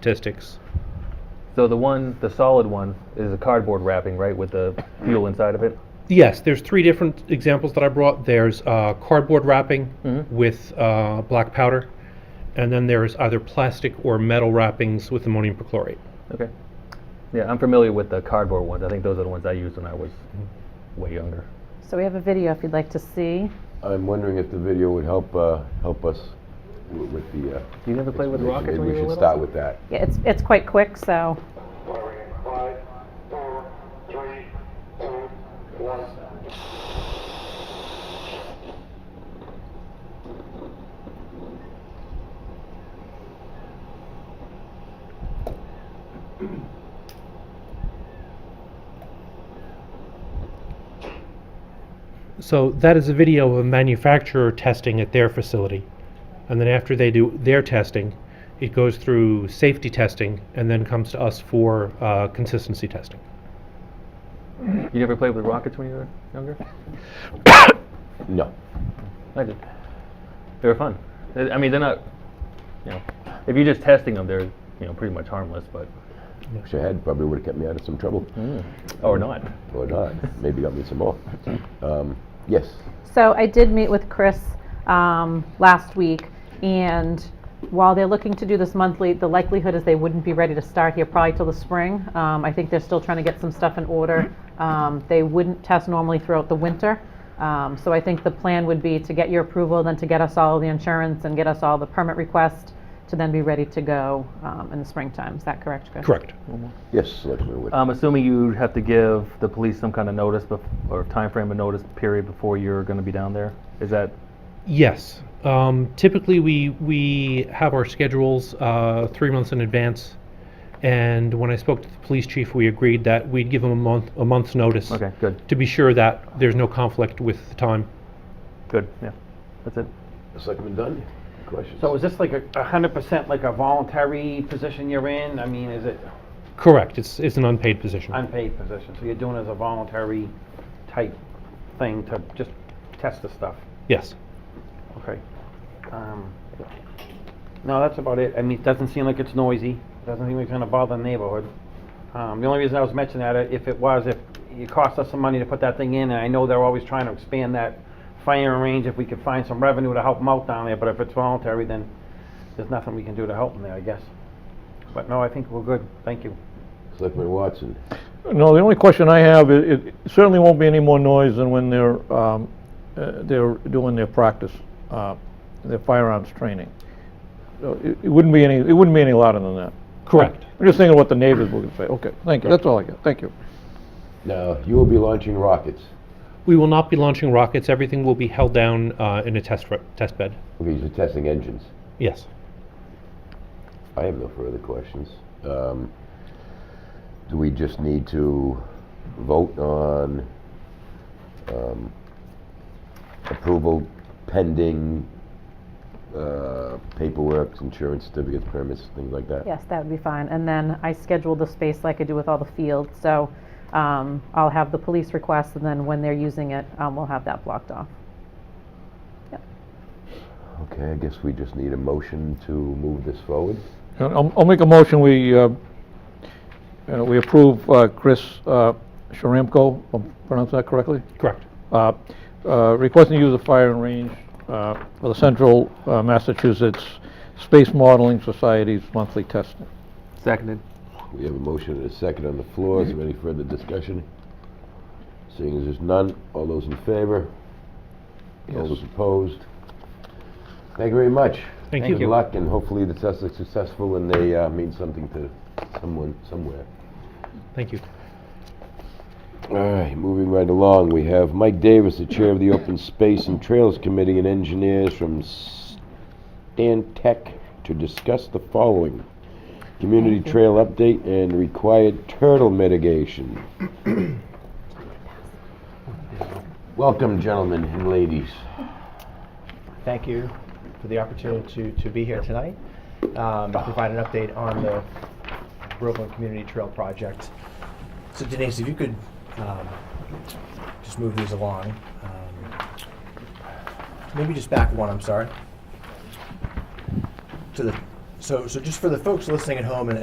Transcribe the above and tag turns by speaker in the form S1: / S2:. S1: statistics.
S2: So the one, the solid one, is a cardboard wrapping, right, with the fuel inside of it.
S1: Yes, there's three different examples that I brought. There's uh, cardboard wrapping
S2: Mhm.
S1: with uh, black powder, and then there's either plastic or metal wrappings with ammonium perchlorate.
S2: Okay. Yeah, I'm familiar with the cardboard ones. I think those are the ones I used when I was way younger.
S3: So we have a video if you'd like to see.
S4: I'm wondering if the video would help, uh, help us w- with the, uh...
S2: You never played with
S4: explanation.
S2: rockets when you
S4: Maybe
S2: were
S4: we should
S2: little?
S4: start with that.
S3: Yeah, it's it's quite quick, so
S5: Five, four, three, two, one.
S1: So that is a video of a manufacturer testing at their facility. And then after they do their testing, it goes through safety testing and then comes to us for uh, consistency testing.
S2: You never played with rockets when you were younger?
S4: No.
S2: I did. They were fun. I I mean, they're not. You know, if you're just testing them, they're you know pretty much harmless, but
S4: Wish I had, probably would've kept me out of some trouble.
S2: Mm. or
S4: Mm-hmm.
S2: not.
S4: Or not. Maybe got me some more. Um, yes.
S3: So I did meet with Chris um, last week, and while they're looking to do this monthly, the likelihood is they wouldn't be ready to start here probably till the spring. Um, I think they're still trying to get some stuff in order. Um, They wouldn't test normally throughout the winter. Um, So I think the plan would be to get your approval, then to get us all the insurance and get us all the permit request to then be ready to go um, in the springtime. Is that correct, Chris?
S1: Correct.
S4: Yes, Selectman Wood.
S2: I'm assuming you have to give the police some kind of notice bef- or time frame of notice period before you're going to be down there. Is that
S1: Yes. Um, typically, we we have our schedules uh, three months in advance, and when I spoke to the police chief, we agreed that we'd give him a month a month's notice.
S2: okay? Good,
S1: To be sure that there's no conflict with the time.
S2: good. Yeah, that's it.
S4: Selectman Dunn, questions?
S6: So is this like a a hundred percent like a voluntary position you're in? I mean, is it
S1: Correct. It's it's an unpaid position.
S6: unpaid position? So you're doing it as a voluntary type thing to just test the stuff?
S1: yes.
S6: Okay. Um, No, that's about it. I mean, it doesn't seem like it's noisy. Doesn't seem like it's gonna bother the neighborhood. Um, the only reason I was mentioning that, uh, if it was, if it cost us some money to put that thing in, and I know they're always trying to expand that firing range, if we could find some revenue to help them out down there, but if it's voluntary, then there's nothing we can do to help them there, I guess. But no, I think we're good. Thank you.
S4: Selectman Watson.
S7: No, the only question I have, it it certainly won't be any more noise than when they're, um, uh, they're doing their practice, uh, their firearms training. So it it wouldn't be any, it wouldn't be any louder than that.
S1: Correct.
S7: I'm just thinking what the neighbors would say. Okay, thank you, that's all I got, thank you.
S4: Now, you will be launching rockets.
S1: We will not be launching rockets. Everything will be held down uh, in a test re- test bed.
S4: Okay, you're testing engines.
S1: Yes.
S4: I have no further questions. Um, Do we just need to vote on um, approval pending uh, paperwork, insurance certificates, permits, things like that?
S3: Yes, that would be fine. And then I scheduled the space like I do with all the fields, so um, I'll have the police request, and then when they're using it, um, we'll have that blocked off.
S4: Okay, I guess we just need a motion to move this forward.
S7: And I'll I'll make a motion, we, uh, you know, we approve uh, Chris uh, Sharamko, if I'm pronouncing that correctly?
S1: Correct.
S7: uh, uh, requesting the use of firing range uh, for the Central uh, Massachusetts Space Modeling Society's monthly testing.
S2: Seconded.
S4: We have a motion and a second on the floor. Is there any further discussion? Seeing as there's none, all those in favor? All those opposed? Thank you very much.
S1: Thank you.
S4: Good luck, and hopefully the tests are successful and they uh, mean something to someone, somewhere.
S1: Thank you.
S4: All right, moving right along, we have Mike Davis, the Chair of the Open Space and Trails Committee, and engineers from Stantec to discuss the following. Community trail update and required turtle mitigation. Welcome, gentlemen and ladies.
S8: thank you for the opportunity to, to be here tonight, um, to provide an update on the Groveland Community Trail Project. So Denise, if you could, um, just move these along. um, Maybe just back one, I'm sorry. To the, So, so just for the folks listening at home and,